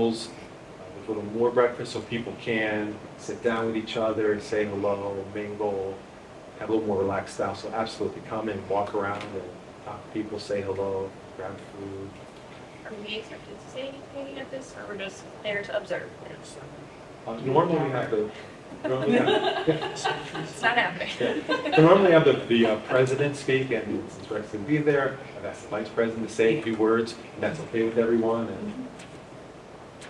meals uh, with a little more breakfast so people can sit down with each other, say hello, mingle, have a little more relaxed style. So absolutely come and walk around and talk to people, say hello, grab food. Are we expected to say anything at this, or we're just there to observe? Uh, normally we have the, normally we have, It's not happening. yeah. So normally we have the, the uh, president speak and since Rex can be there, I've asked the vice president to say a few words and that's okay with everyone. And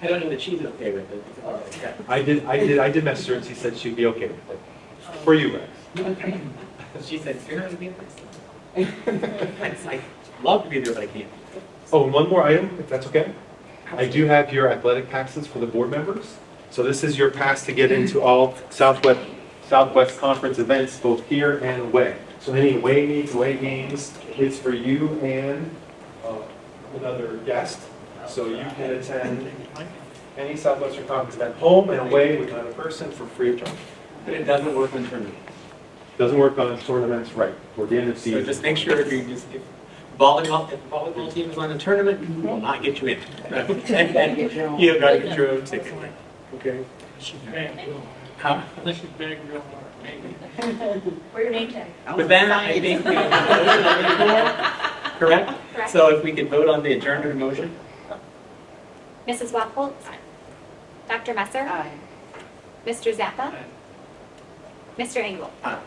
I don't know that she's okay with it. All right, yeah. I did, I did, I did message her and she said she'd be okay with it. For you, Rex. She said, you're not gonna be there. I'd love to be there, but I can't. Oh, and one more item, if that's okay? I do have your athletic passes for the board members. So this is your pass to get into all Southwest, Southwest Conference events, both here and away. So any away meets, away games, it's for you and uh, another guest. So you can attend any Southwestern Conference event, home and away with another person for free of charge. But it doesn't work on tournament. Doesn't work on tournaments, right, or the end of So season. just make sure if you just, if volleyball, if the volleyball team is on a tournament, we will not get you in. You've got to get your own ticket. Okay? She's back, Huh? she's back real hard, maybe. Wear your name tag. With that, I think we have voted on the floor, correct? Correct. So if we could vote on the adjournment motion? Mrs. Wacholz? Dr. Messer? Mr. Zappa? Mr. Engel? Aye.